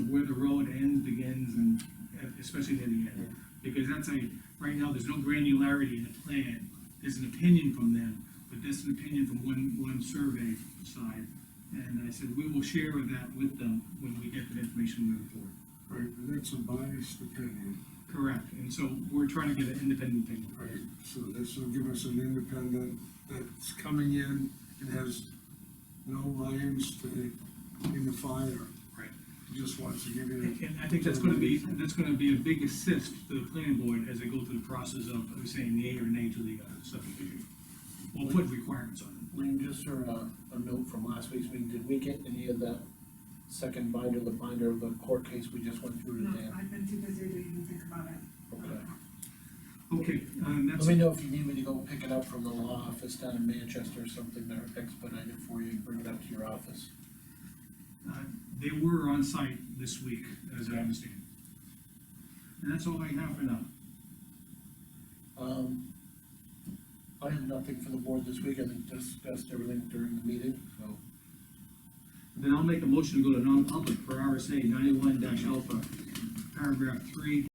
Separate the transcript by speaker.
Speaker 1: happens and especially near the end. Because that's a, right now, there's no granularity in the plan, there's an opinion from them, but that's an opinion from one, one survey side. And I said, we will share that with them when we get the information moving forward.
Speaker 2: Right, but that's a biased opinion,
Speaker 1: Correct, and so we're trying to get an independent opinion.
Speaker 2: right? So this will give us an independent that's coming in and has no irons to, the- in the fire.
Speaker 1: Right.
Speaker 2: Just wants to give
Speaker 1: And
Speaker 2: you,
Speaker 1: and I think that's gonna be, that's gonna be a big assist to the planning board as they go through the process of saying yea or nay to the uh, subdivision. We'll put requirements on
Speaker 3: Lean, just for a, a note from last week's meeting, did we get any of that second binder, the binder of the court case we just went through
Speaker 4: No,
Speaker 3: today?
Speaker 4: I've been too busy to even think about it.
Speaker 3: Okay.
Speaker 1: it. Okay, and
Speaker 3: Let
Speaker 1: that's,
Speaker 3: me know if you need me to go pick it up from the law office down in Manchester or something, there expedite it for you and bring it up to your office.
Speaker 1: uh, they were on site this week, as I understand. And that's all I have for now.
Speaker 3: Um, I have nothing for the board this week, I think discussed everything during the meeting, so.
Speaker 1: Then I'll make a motion to go to non-public for RSA ninety-one dash alpha, paragraph three,